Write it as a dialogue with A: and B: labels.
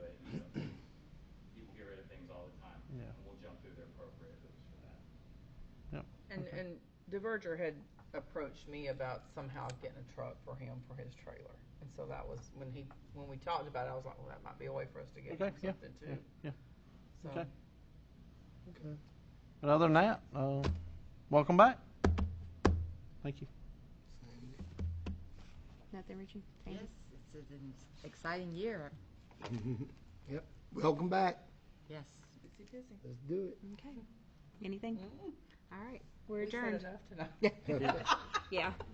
A: Diverger had approached me about somehow getting a truck for him for his trailer. And so that was when he, when we talked about it, I was like, well, that might be a way for us to get
B: Okay,
A: him
B: yeah,
A: something
B: yeah,
A: too.
B: yeah.
A: So,
B: Okay. But other than that, uh, welcome back. Thank you.
C: Nothing, Richie? Thank you.
D: Yes, it's an exciting year.
E: Yep, welcome back.
D: Yes.
A: busy, busy.
E: Let's do it.
D: Mm-hmm.
C: Okay. Anything? All right.
A: Mm-hmm.
C: We're
A: We said
C: adjourned.
A: enough tonight.
C: Yeah.